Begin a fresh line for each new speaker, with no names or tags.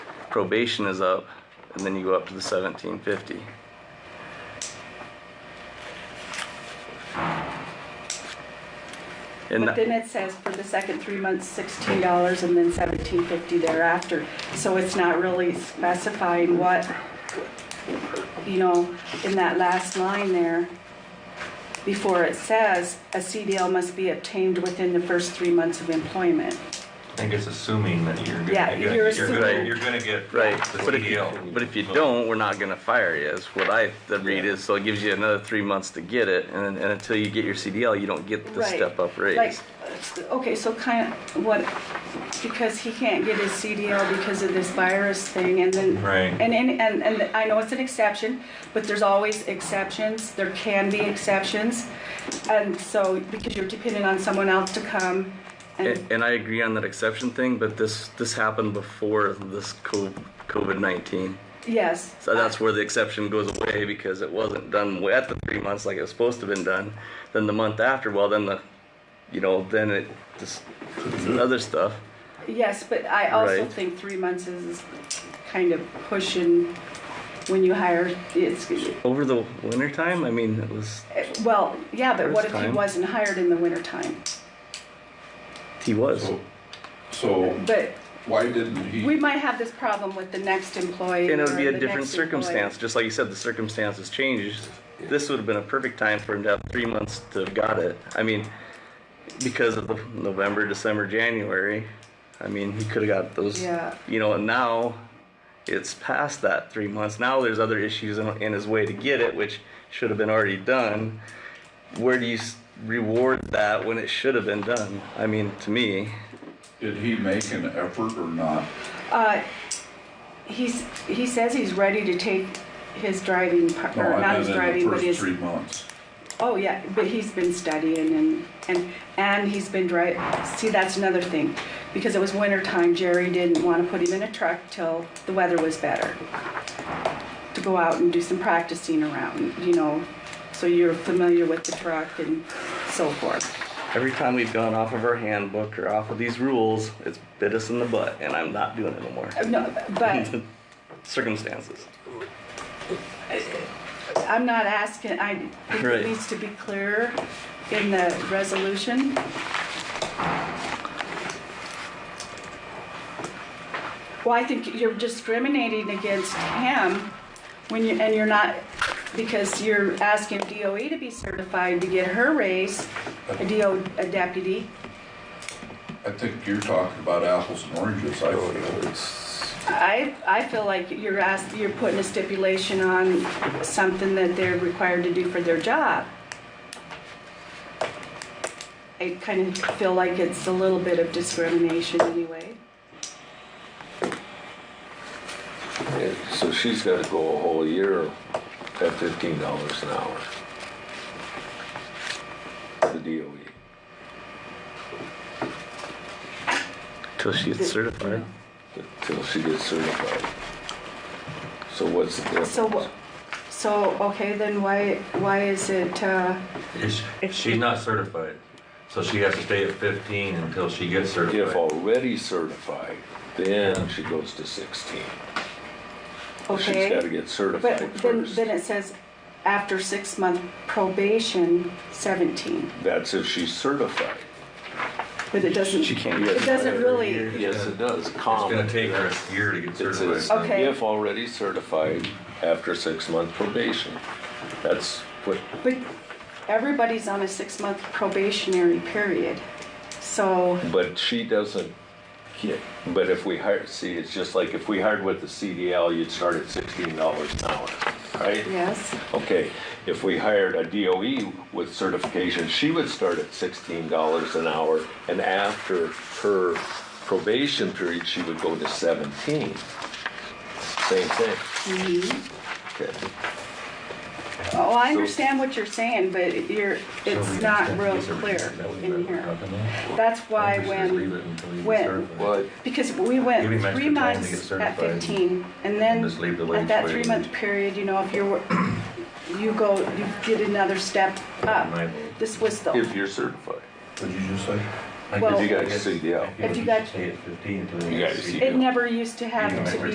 probation is up, and then you go up to the seventeen fifty. And
But then
that-
it says for the second three months, sixteen dollars and then seventeen fifty thereafter. So it's not really specifying what, you know, in that last line there, before it says, a CDL must be obtained within the first three months of employment.
I think it's assuming that you're gonna,
Yeah,
you're
you're
gonna- you're gonna,
assuming.
you're gonna get
right,
the E
but if you,
CDL.
but if you don't, we're not gonna fire you, is what I, the read is, so it gives you another three months to get it, and, and until you get your CDL, you don't get the
Right.
step up
Like,
raise.
uh, okay, so kind of, what, because he can't get his CDL because of this virus thing and then.
Right.
And, and, and, and I know it's an exception, but there's always exceptions, there can be exceptions. And so, because you're dependent on someone else to come and,
And, and I agree on that exception thing, but this, this happened before this COVID nineteen.
yes.
So that's where the exception goes away because it wasn't done at the three months like it was supposed to have been done. Then the month after, well, then the, you know, then it just it's other stuff.
Yes, but I also
Right.
think three months is kind of pushing when you hire, it's,
Over the winter time, I mean, it was
well, yeah, but what if
First
he
time.
wasn't hired in the wintertime?
he was.
So- So
But
why didn't he?
We might have this problem with the next employee.
and it would be
or
a
the
different
next employee.
circumstance, just like you said, the circumstances changed. This would have been a perfect time for him to have three months to have got it. I mean, because of the November, December, January, I mean, he could have got those.
Yeah.
You know, and now it's past that three months. Now there's other issues in, in his way to get it, which should have been already done. Where do you s- reward that when it should have been done? I mean, to me,
Did he make an effort or not?
Uh, he's, he says he's ready to take his driving, par-
No,
or
I
not his
meant in
driving,
the
but
first
his,
three months.
oh yeah, but he's been studying and, and, and he's been dri, see, that's another thing. Because it was winter time, Jerry didn't want to put him in a truck till the weather was better. To go out and do some practicing around, you know, so you're familiar with the truck and so forth.
Every time we've gone off of our handbook or off of these rules, it's bit us in the butt, and I'm not doing it anymore.
Uh, No, but
Circumstances.
I'm not asking, I think
Right.
it needs to be clearer in the resolution. Well, I think you're discriminating against him when you, and you're not, because you're asking DOE to be certified to get her raise, a DO, a deputy.
I think you're talking about apples and oranges, I feel.
It's,
I, I feel like you're ask you're putting a stipulation on something that they're required to do for their job. I kind of feel like it's a little bit of discrimination anyway.
yeah, so she's gotta go a whole year at fifteen dollars an hour. The E, DOE,
Till she gets certified.
until she gets certified. So what's the difference?
So, wha- so, okay, then why, why is it, uh,
Is- She's not certified, so she has to stay at fifteen until she gets
If
certified.
already certified, then she goes to sixteen. She's gotta
okay?
get certified
But then,
first.
then it says after six month probation, seventeen,
That's if she's certified.
but it doesn't,
She can't
it
get
doesn't really,
Yes, it does,
It's
comma.
gonna take her a year to get
It says,
certified.
Okay.
if already certified after six month probation. That's what,
But everybody's on a six-month probationary period, so,
but she doesn't get, but if we hire, see, it's just like if we hired with the CDL, you'd start at sixteen dollars an hour, right?
yes,
Okay, if we hired a DOE with certification, she would start at sixteen dollars an hour, and after her probation period, she would go to seventeen. Same thing. Okay.
oh, I understand what you're saying, but you're, it's not real clear in here. That's why when, when-
Well,
because we went
Give him extra
three
time to
months
get
at
certified.
fifteen, and then
Just leave the wage
at that
the way it
three-month
is.
period, you know, if you're, wor- you go, you get another step
My
up.
vote.
This was
if
the,
you're certified.
What'd you just say?
Uh, well,
you got a CDL.
If you got-
Stay at fifteen until they
You
get E
got a
CDL.
it never used to have to be